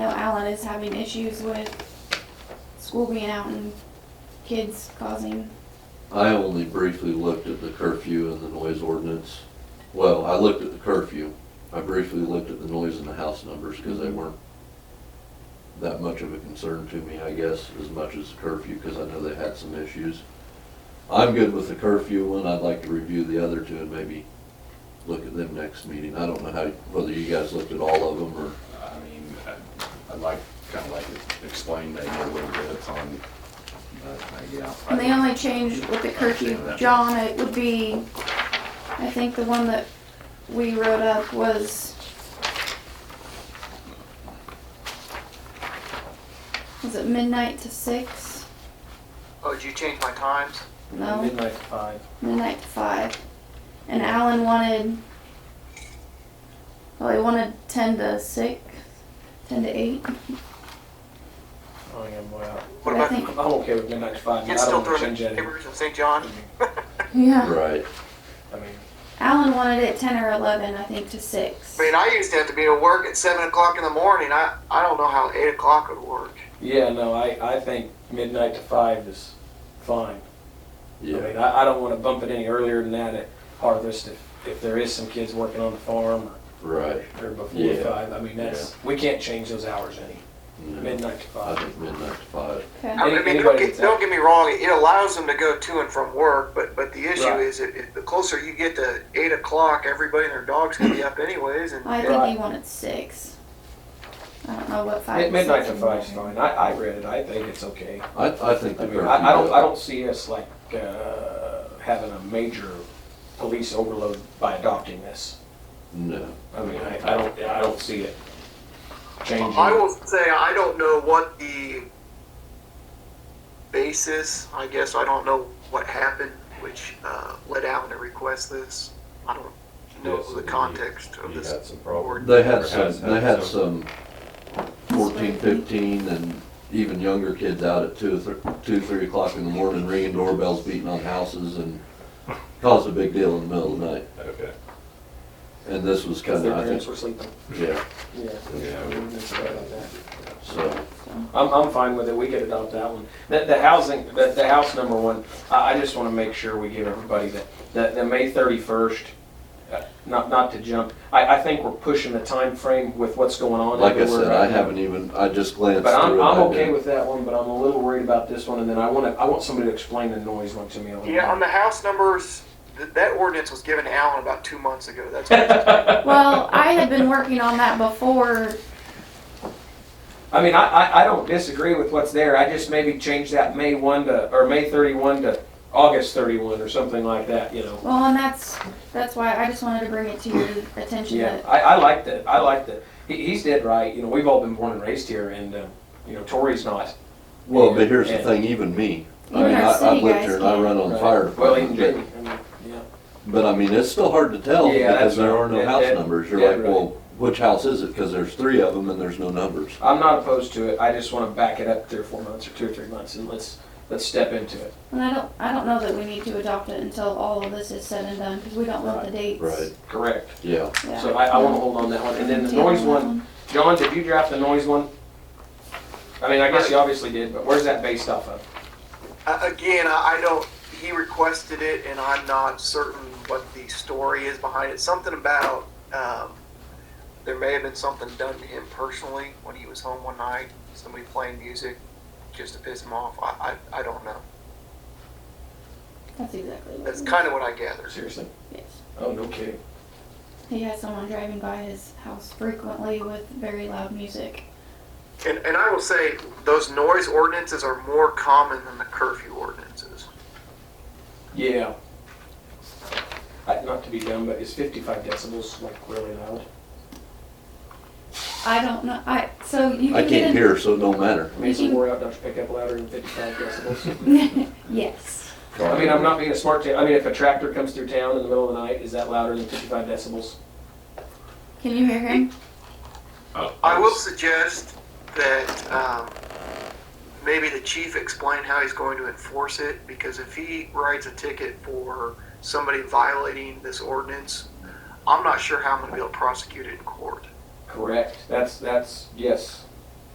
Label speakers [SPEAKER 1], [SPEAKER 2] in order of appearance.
[SPEAKER 1] on is having issues with school being out and kids causing,
[SPEAKER 2] I only briefly looked at the curfew and the noise ordinance. Well, I looked at the curfew. I briefly looked at the noise and the house numbers because
[SPEAKER 3] Mm-hmm.
[SPEAKER 2] they weren't that much of a concern to me, I guess, as much as the curfew because I know they had some issues. I'm good with the curfew one. I'd like to review the other two and maybe look at them next meeting. I don't know how, whether you guys looked at all of them or,
[SPEAKER 4] I mean, I- I'd like, kind of like to explain maybe a little bit on, but, uh, yeah.
[SPEAKER 1] and the only change with the curfew, John, it would be, I think the one that we wrote up was, was it midnight to six?
[SPEAKER 5] Oh, did you change my times?
[SPEAKER 1] No?
[SPEAKER 3] Midnight to five.
[SPEAKER 1] midnight to five, and Alan wanted. Well, he wanted ten to six, ten to eight.
[SPEAKER 3] Oh, yeah, boy, I-
[SPEAKER 5] What
[SPEAKER 1] I
[SPEAKER 5] about,
[SPEAKER 1] think-
[SPEAKER 3] I'm okay with midnight to five. I
[SPEAKER 5] it's still
[SPEAKER 3] don't want to
[SPEAKER 5] during
[SPEAKER 3] change
[SPEAKER 5] the
[SPEAKER 3] that.
[SPEAKER 5] neighborhoods of St. John?
[SPEAKER 1] Yeah.
[SPEAKER 2] right?
[SPEAKER 3] I mean,
[SPEAKER 1] Alan wanted it ten or eleven, I think, to six.
[SPEAKER 5] I mean, I used to have to be at work at seven o'clock in the morning. I, I don't know how eight o'clock would work.
[SPEAKER 3] yeah, no, I, I think midnight to five is fine. I
[SPEAKER 2] Yeah.
[SPEAKER 3] mean, I, I don't want to bump it any earlier than that at harvest if, if there is some kids working on the farm
[SPEAKER 2] Right.
[SPEAKER 3] or, or before
[SPEAKER 2] Yeah.
[SPEAKER 3] five. I mean, that's, we can't change those hours any,
[SPEAKER 2] No,
[SPEAKER 3] midnight to
[SPEAKER 2] I
[SPEAKER 3] five.
[SPEAKER 2] think midnight to five.
[SPEAKER 1] Okay.
[SPEAKER 5] I
[SPEAKER 3] Any-
[SPEAKER 5] mean, don't
[SPEAKER 3] anybody
[SPEAKER 5] get,
[SPEAKER 3] that's
[SPEAKER 5] don't
[SPEAKER 3] out.
[SPEAKER 5] get me wrong, it allows them to go to and from work, but, but the issue
[SPEAKER 3] Right.
[SPEAKER 5] is it, it, the closer you get to eight o'clock, everybody and their dogs can be up anyways. And
[SPEAKER 1] Oh, I think
[SPEAKER 3] Right.
[SPEAKER 1] he wanted six. I don't know what five.
[SPEAKER 3] Mid- Midnight to
[SPEAKER 1] six
[SPEAKER 3] five's
[SPEAKER 1] is.
[SPEAKER 3] fine. I, I read it. I think it's okay.
[SPEAKER 2] I, I think the
[SPEAKER 3] I mean,
[SPEAKER 2] curfew.
[SPEAKER 3] I, I don't, I don't see us like, uh, having a major police overload by adopting this.
[SPEAKER 2] No.
[SPEAKER 3] I mean, I, I don't, I don't see it changing.
[SPEAKER 5] I will say I don't know what the basis. I guess I don't know what happened, which uh, led Alan to request this. I don't know
[SPEAKER 6] Yes,
[SPEAKER 5] the
[SPEAKER 6] he-
[SPEAKER 5] context of
[SPEAKER 6] he
[SPEAKER 5] this.
[SPEAKER 6] had some problems.
[SPEAKER 2] They had
[SPEAKER 6] Or
[SPEAKER 2] some,
[SPEAKER 6] has
[SPEAKER 2] they had
[SPEAKER 6] had
[SPEAKER 2] some 14, 15, and even younger kids out at two, or thr- two, three o'clock in the morning ringing doorbells, beating on houses and caused a big deal in the middle of the night.
[SPEAKER 6] Okay,
[SPEAKER 2] And this was
[SPEAKER 3] Because
[SPEAKER 2] kind
[SPEAKER 3] their
[SPEAKER 2] of, I
[SPEAKER 3] parents
[SPEAKER 2] think,
[SPEAKER 3] were sleeping.
[SPEAKER 2] yeah,
[SPEAKER 3] Yeah.
[SPEAKER 6] yeah, we-
[SPEAKER 2] so,
[SPEAKER 3] I'm, I'm fine with it. We could adopt that one. The, the housing, the, the house number one, I, I just want to make sure we give everybody that, that, the May thirty-first, uh, not, not to jump, I, I think we're pushing the time frame with what's going on.
[SPEAKER 2] like I
[SPEAKER 3] everywhere
[SPEAKER 2] said, I
[SPEAKER 3] right now.
[SPEAKER 2] haven't even, I just glanced
[SPEAKER 3] But I'm,
[SPEAKER 2] through it.
[SPEAKER 3] I'm
[SPEAKER 2] I
[SPEAKER 3] okay
[SPEAKER 2] didn't-
[SPEAKER 3] with that one, but I'm a little worried about this one, and then I want to, I want somebody to explain the noise one to me a little.
[SPEAKER 5] Yeah, on the house numbers, th- that ordinance was given to Alan about two months ago. That's what
[SPEAKER 1] Well, I had been working on that before.
[SPEAKER 3] I mean, I, I, I don't disagree with what's there, I just maybe change that May one to, or May thirty-one to August thirty-one or something like that, you know?
[SPEAKER 1] Well, and that's that's why I just wanted to bring it to your attention
[SPEAKER 3] Yeah,
[SPEAKER 1] that
[SPEAKER 3] I, I like that, I like that, he, he's dead right, you know, we've all been born and raised here, and, uh, you know, Tori's not.
[SPEAKER 2] Well, but here's the
[SPEAKER 3] And-
[SPEAKER 2] thing, even me, I
[SPEAKER 1] Even
[SPEAKER 2] mean,
[SPEAKER 1] our
[SPEAKER 2] I,
[SPEAKER 1] city
[SPEAKER 2] I've lived
[SPEAKER 1] guys
[SPEAKER 2] here and I
[SPEAKER 1] can't.
[SPEAKER 2] run on the
[SPEAKER 3] Right.
[SPEAKER 2] fire
[SPEAKER 3] Well, even
[SPEAKER 2] department,
[SPEAKER 3] Jamie, I mean, yeah,
[SPEAKER 2] but, but I mean, it's still hard to tell
[SPEAKER 3] Yeah,
[SPEAKER 2] because
[SPEAKER 3] that's
[SPEAKER 2] there
[SPEAKER 3] right.
[SPEAKER 2] are no
[SPEAKER 3] That-
[SPEAKER 2] house
[SPEAKER 3] that-
[SPEAKER 2] numbers. You're
[SPEAKER 3] yeah,
[SPEAKER 2] like,
[SPEAKER 3] right.
[SPEAKER 2] well, which house is it? Because there's three of them and there's no numbers.
[SPEAKER 3] I'm not opposed to it, I just want to back it up three or four months, or two or three months, and let's, let's step into it.
[SPEAKER 1] And I don't, I don't know that we need to adopt it until all of this is said and done, because we don't want the dates.
[SPEAKER 2] Right,
[SPEAKER 3] Correct.
[SPEAKER 2] yeah.
[SPEAKER 1] Yeah.
[SPEAKER 3] So I, I wanna hold on that one, and then the
[SPEAKER 1] Do you have
[SPEAKER 3] noise one, John, did you draft the noise one? I mean, I guess you obviously did, but where's that based off of?
[SPEAKER 5] I, again, I, I don't. He requested it, and I'm not certain what the story is behind it. Something about um, there may have been something done to him personally when he was home one night. Somebody playing music just to piss him off. I, I, I don't know.
[SPEAKER 1] That's exactly what.
[SPEAKER 5] That's
[SPEAKER 1] it
[SPEAKER 5] kind of what I gathered.
[SPEAKER 3] Seriously?
[SPEAKER 1] is.
[SPEAKER 3] Oh, no kidding.
[SPEAKER 1] He has someone driving by his house frequently with very loud music.
[SPEAKER 5] And, and I will say, those noise ordinances are more common than the curfew ordinances.
[SPEAKER 3] Yeah. I, not to be dumb, but is fifty-five decibels like really loud?
[SPEAKER 1] I don't know, I, so you
[SPEAKER 2] I
[SPEAKER 1] can get
[SPEAKER 2] can't
[SPEAKER 1] in.
[SPEAKER 2] hear, so it don't matter.
[SPEAKER 3] I mean, is wore out, don't you pick up louder than fifty-five decibels?
[SPEAKER 1] Yes,
[SPEAKER 3] I mean, I'm not being a smart, ta- I mean, if a tractor comes through town in the middle of the night, is that louder than fifty-five decibels?
[SPEAKER 1] can you hear him?
[SPEAKER 4] Oh.
[SPEAKER 6] I
[SPEAKER 5] I will
[SPEAKER 6] was-
[SPEAKER 5] suggest that um, maybe the chief explain how he's going to enforce it, because if he writes a ticket for somebody violating this ordinance, I'm not sure how I'm gonna be able to prosecute it in court.
[SPEAKER 3] Correct, that's, that's, yes.